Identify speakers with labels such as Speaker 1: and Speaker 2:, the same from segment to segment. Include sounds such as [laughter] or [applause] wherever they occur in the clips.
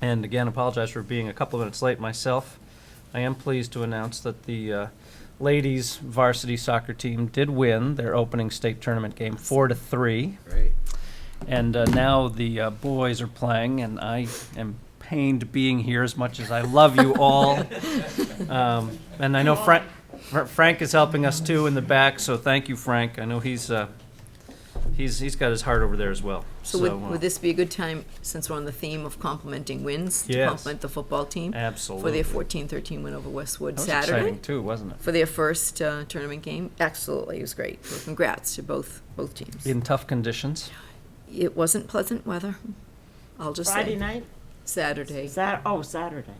Speaker 1: And again, apologize for being a couple of minutes late myself. I am pleased to announce that the uh, ladies varsity soccer team did win their opening state tournament game four to three.
Speaker 2: Great.
Speaker 1: And uh, now the uh, boys are playing, and I am pained being here as much as I love you all. Um, and I know Frank, Frank is helping us too in the back, so thank you, Frank. I know he's uh, he's he's got his heart over there as well.
Speaker 3: So would,
Speaker 1: uh,
Speaker 3: would this be a good time, since we're on the theme of complimenting wins, to
Speaker 1: Yes.
Speaker 3: compliment the football team? For
Speaker 1: absolutely
Speaker 3: their 14-13 win over Westwood
Speaker 1: that was
Speaker 3: Saturday?
Speaker 1: exciting too, wasn't it?
Speaker 3: For their first uh, tournament game? Absolutely, it was great. So Congrats to both, both teams.
Speaker 1: In tough conditions.
Speaker 3: It wasn't pleasant weather, I'll just
Speaker 4: Friday
Speaker 3: say.
Speaker 4: night?
Speaker 3: Saturday.
Speaker 4: Sat, oh, Saturday.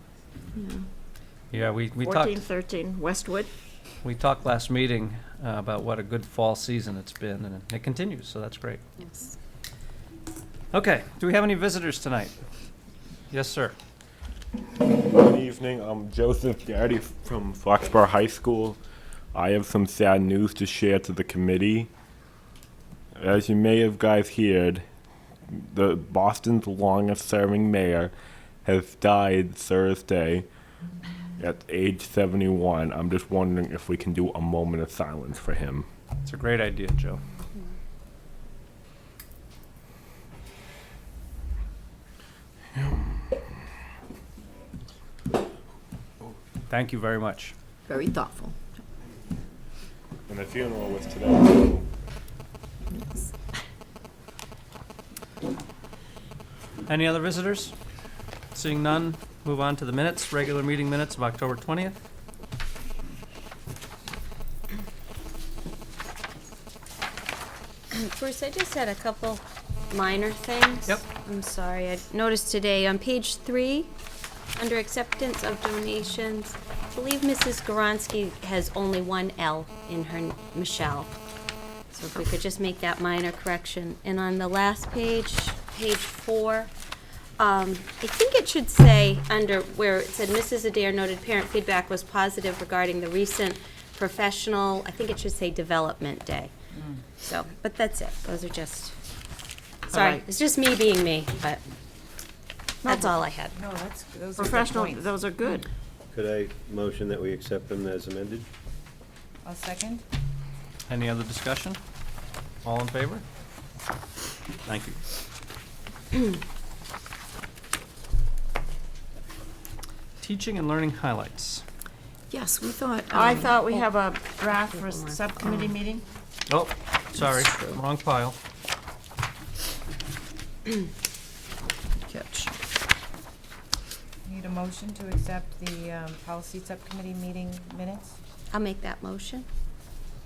Speaker 1: Yeah, we, we
Speaker 4: Fourteen,
Speaker 1: talked
Speaker 4: thirteen, Westwood.
Speaker 1: we talked last meeting uh, about what a good fall season it's been, and it continues. So that's great.
Speaker 3: Yes.
Speaker 1: Okay, do we have any visitors tonight? Yes, sir.
Speaker 5: Good evening. I'm Joseph Garrity from Foxborough High School. I have some sad news to share to the committee. As you may have guys heard, the Boston's longest-serving mayor has died Thursday at age 71. I'm just wondering if we can do a moment of silence for him.
Speaker 1: It's a great idea, Joe. Thank you very much.
Speaker 3: Very thoughtful.
Speaker 5: And the funeral was today. so-
Speaker 1: Any other visitors? Seeing none, move on to the minutes, regular meeting minutes of October 20th.
Speaker 6: Bruce, I just had a couple minor things.
Speaker 1: Yep.
Speaker 6: I'm sorry. I noticed today on page three, under acceptance of donations, I believe Mrs. Goransky has only one L in her, n- Michelle. So if we could just make that minor correction. And on the last page, page four, um, I think it should say, under where it said Mrs. Adair noted parent feedback was positive regarding the recent professional, I think it should say Development Day.
Speaker 7: Mm.
Speaker 6: So, but that's it. Those are just, sorry,
Speaker 4: right.
Speaker 6: it's just me being me, but that's all I had.
Speaker 7: No, that's, those are good
Speaker 4: Professional,
Speaker 7: points.
Speaker 4: those are good.
Speaker 1: Mm-hmm.
Speaker 2: Could I motion that we accept them as amended?
Speaker 7: A second?
Speaker 1: Any other discussion? All in favor? Thank you. Teaching and learning highlights.
Speaker 3: Yes, we thought.
Speaker 4: I
Speaker 3: um,
Speaker 4: thought we have a draft for a
Speaker 6: Hold on.
Speaker 4: subcommittee meeting.
Speaker 1: Oh, sorry, wrong pile.
Speaker 3: Catch.
Speaker 7: Need a motion to accept the um, policy subcommittee meeting minutes?
Speaker 6: I'll make that motion.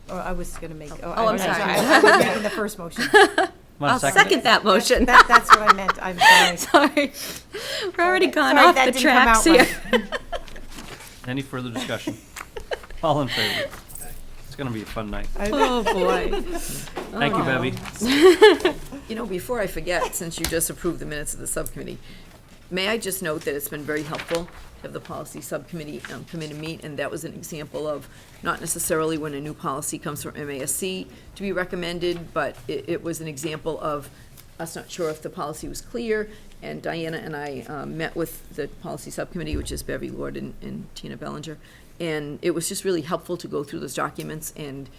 Speaker 7: Oh, I was going to make, oh,
Speaker 6: Oh,
Speaker 7: I
Speaker 6: I'm
Speaker 7: was sorry.
Speaker 6: sorry.
Speaker 7: I was making
Speaker 6: [laughs]
Speaker 7: the first motion.
Speaker 1: Want a
Speaker 6: Second that motion.
Speaker 7: That- That's what I meant, I'm
Speaker 6: [laughs] Sorry.
Speaker 7: sorry.
Speaker 6: We're already gone
Speaker 7: Sorry,
Speaker 6: off the
Speaker 7: that didn't come
Speaker 6: tracks
Speaker 7: out
Speaker 6: here.
Speaker 1: Any further discussion? All in favor? It's gonna be a fun night.
Speaker 6: [laughs] Oh, boy.
Speaker 1: Thank you, Bevy.
Speaker 3: You know, before I forget, since you just approved the minutes of the subcommittee, may I just note that it's been very helpful to have the policy subcommittee um, come in and meet, and that was an example of not necessarily when a new policy comes from MASC to be recommended, but it, it was an example of us not sure if the policy was clear, and Diana and I um, met with the policy subcommittee, which is Bevy Lord and- and Tina Bellinger, and it was just really helpful to go through those documents and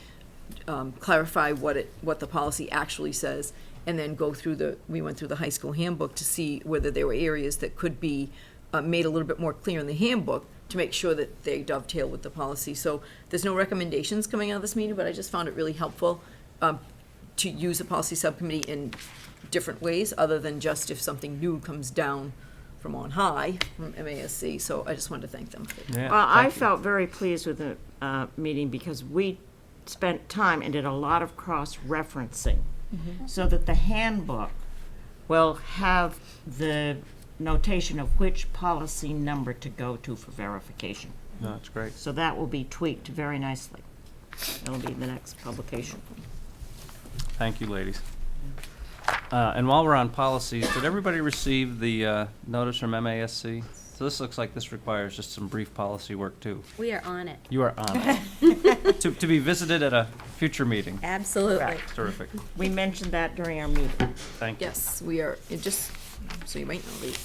Speaker 3: um, clarify what it, what the policy actually says, and then go through the, we went through the high school handbook to see whether there were areas that could be uh, made a little bit more clear in the handbook to make sure that they dovetail with the policy. So there's no recommendations coming out of this meeting, but I just found it really helpful um, to use a policy subcommittee in different ways, other than just if something new comes down from on high, from MASC. So I just wanted to thank them.
Speaker 1: Yeah,
Speaker 4: Well, I
Speaker 1: thank you.
Speaker 4: felt very pleased with the uh, meeting because we spent time and did a lot of cross-referencing
Speaker 1: Mm-hmm.
Speaker 4: so that the handbook will have the notation of which policy number to go to for verification.
Speaker 1: No, it's great.
Speaker 4: So that will be tweaked very nicely. It'll be the next publication.
Speaker 1: Thank you, ladies. Uh, and while we're on policies, did everybody receive the, uh, notice from MASC? So this looks like this requires just some brief policy work too.
Speaker 6: We are on it.
Speaker 1: You are on it. To, to be visited at a future meeting.
Speaker 6: Absolutely.
Speaker 1: Terrific.
Speaker 4: We mentioned that during our meeting.
Speaker 1: Thank you.
Speaker 3: Yes, we are, it just, so you might know, the